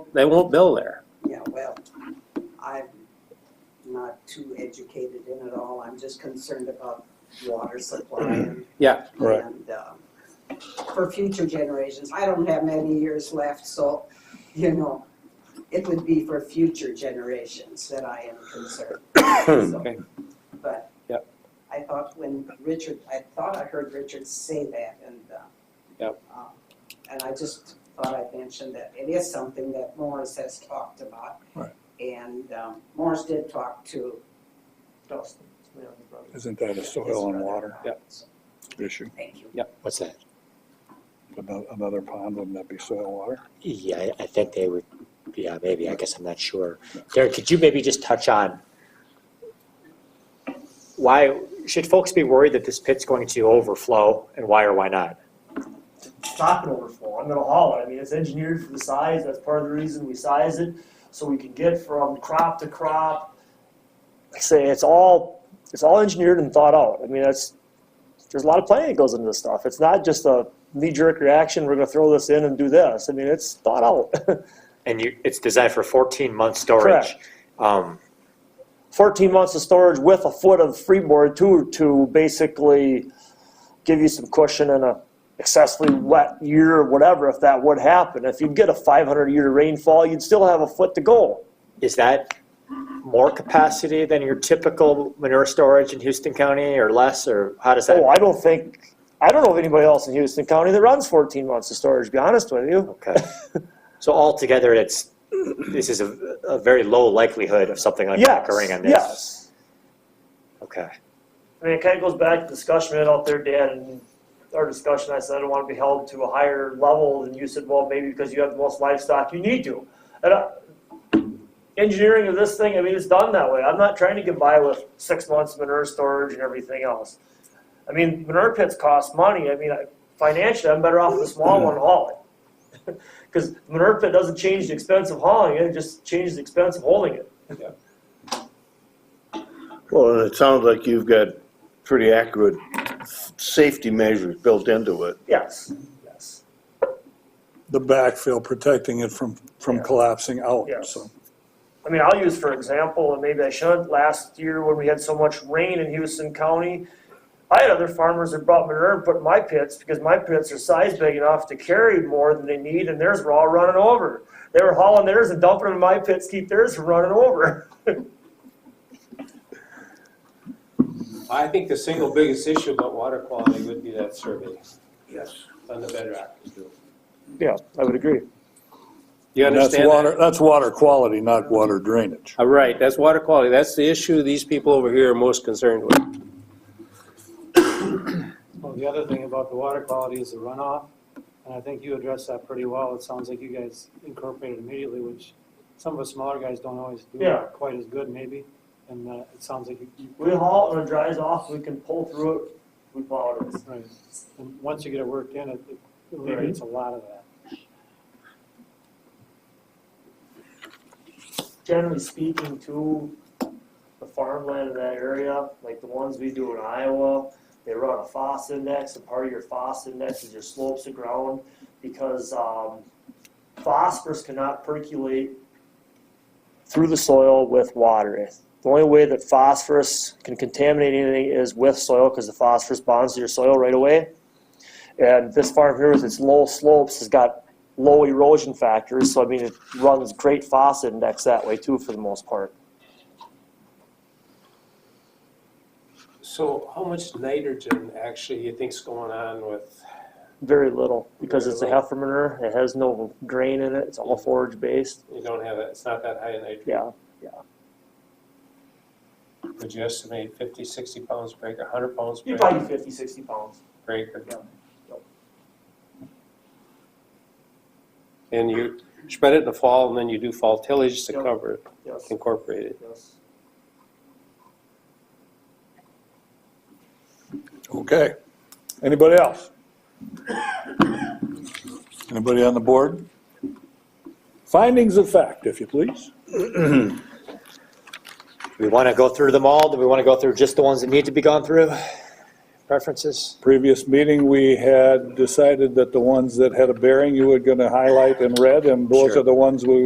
They won't bill there. Yeah, well, I'm not too educated in it all. I'm just concerned about water supply and. Yeah. Right. And, um, for future generations. I don't have many years left, so, you know, it would be for future generations that I am concerned. So, Okay. But. Yep. I thought when Richard, I thought I heard Richard say that and, uh. Yep. um, And I just thought I'd mention that it is something that Morris has talked about. Right. And, um, Morris did talk to Dawson, Leon Brothers. Isn't that a soil and water Yep. issue? Thank you. What's that? Ano- Another pond, wouldn't that be soil and water? Yeah, I- I think they would, yeah, maybe, I guess I'm not sure. Derek, could you maybe just touch on why, should folks be worried that this pit's going to overflow and why or why not? it's not gonna overflow. I'm gonna haul it. I mean, it's engineered for the size. That's part of the reason we size it, so we can get from crop to crop. Like I say it's all it's all engineered and thought out. I mean, that's there's a lot of planning that goes into this stuff. It's not just a knee jerk reaction. We're gonna throw this in and do this. I mean, it's thought out. And you, it's designed for 14 month storage. Um, 14 months of storage with a foot of freeboard too to basically give you some cushion in a excessively wet year or whatever if that would happen. If you get a 500 year rainfall, you'd still have a foot to go. Is that more capacity than your typical manure storage in Houston County or less, or how does Oh, that? I don't think I don't know of anybody else in Houston County that runs 14 months of storage. To be honest with you, Okay. So altogether, it's, this is a, a very low likelihood of something like that yes, occurring on this? yes. Okay. I mean, it kind of goes back to the discussion we had out there, Dan, and our discussion, I said, I don't want to be held to a higher level, and you said, well, maybe because you have the most livestock, you need to. And uh, engineering of this thing, I mean, it's done that way. I'm not trying to get by with six months manure storage and everything else. I mean, manure pits cost money. I mean, I- financially, I'm better off with a small one and haul it. Because manure pit doesn't change the expense of hauling it, it just changes the expense of holding it. Well, and it sounds like you've got pretty accurate safety measures built into it. Yes, yes, The backfill protecting it from, from Yeah. collapsing out, yes. so. I mean, I'll use for example, and maybe I shouldn't, last year when we had so much rain in Houston County, I had other farmers that brought manure and put in my pits because my pits are size big enough to carry more than they need and theirs were all running over. They were hauling theirs and dumping them in my pits, keep theirs from running over. I think the single biggest issue about water quality would be that survey Yes. on the bedrock. Yeah, I would agree. You And that's understand that? water. That's water quality, not water drainage. Uh, Right, that's water quality. That's the issue these people over here are most concerned with. Well, the other thing about the water quality is the runoff, and I think you addressed that pretty well. It sounds like you guys incorporated immediately, which some of us smaller guys don't always do Yeah. quite as good maybe. And uh, it sounds like you, you- We haul it when it dries off, we can pull through it, we plow it. right. And once you get it worked in, it it eliminates a lot of that. generally speaking to the farmland in that area, like the ones we do in Iowa, they run a FOS index, and part of your FOS index is your slopes of ground, because, um, phosphorus cannot percolate through the soil with water. The only way that phosphorus can contaminate anything is with soil because the phosphorus bonds to your soil right away. And this farm here with its low slopes has got low erosion factors, so I mean it runs great FOS index that way too for the most part. So how much nitrogen actually you think's going on with, Very little because it's a heifer manure. It has no grain in it. It's all forage based. you don't have, that. it's not that high in nitrogen. Yeah. Would you estimate 50, 60 pounds per acre, 100 pounds per you acre? probably 50, 60 pounds. per acre? Yeah. And you spread it in the fall and then you do fall tillage to Yeah. cover it, Yes, incorporate it. yes. Okay. Anybody else? Anybody on the board? Findings of fact, if you please. Do we want to go through them all? Do we want to go through just the ones that need to be gone through? Preferences? Previous meeting, we had decided that the ones that had a bearing, you were gonna highlight in red, and those Sure. are the ones we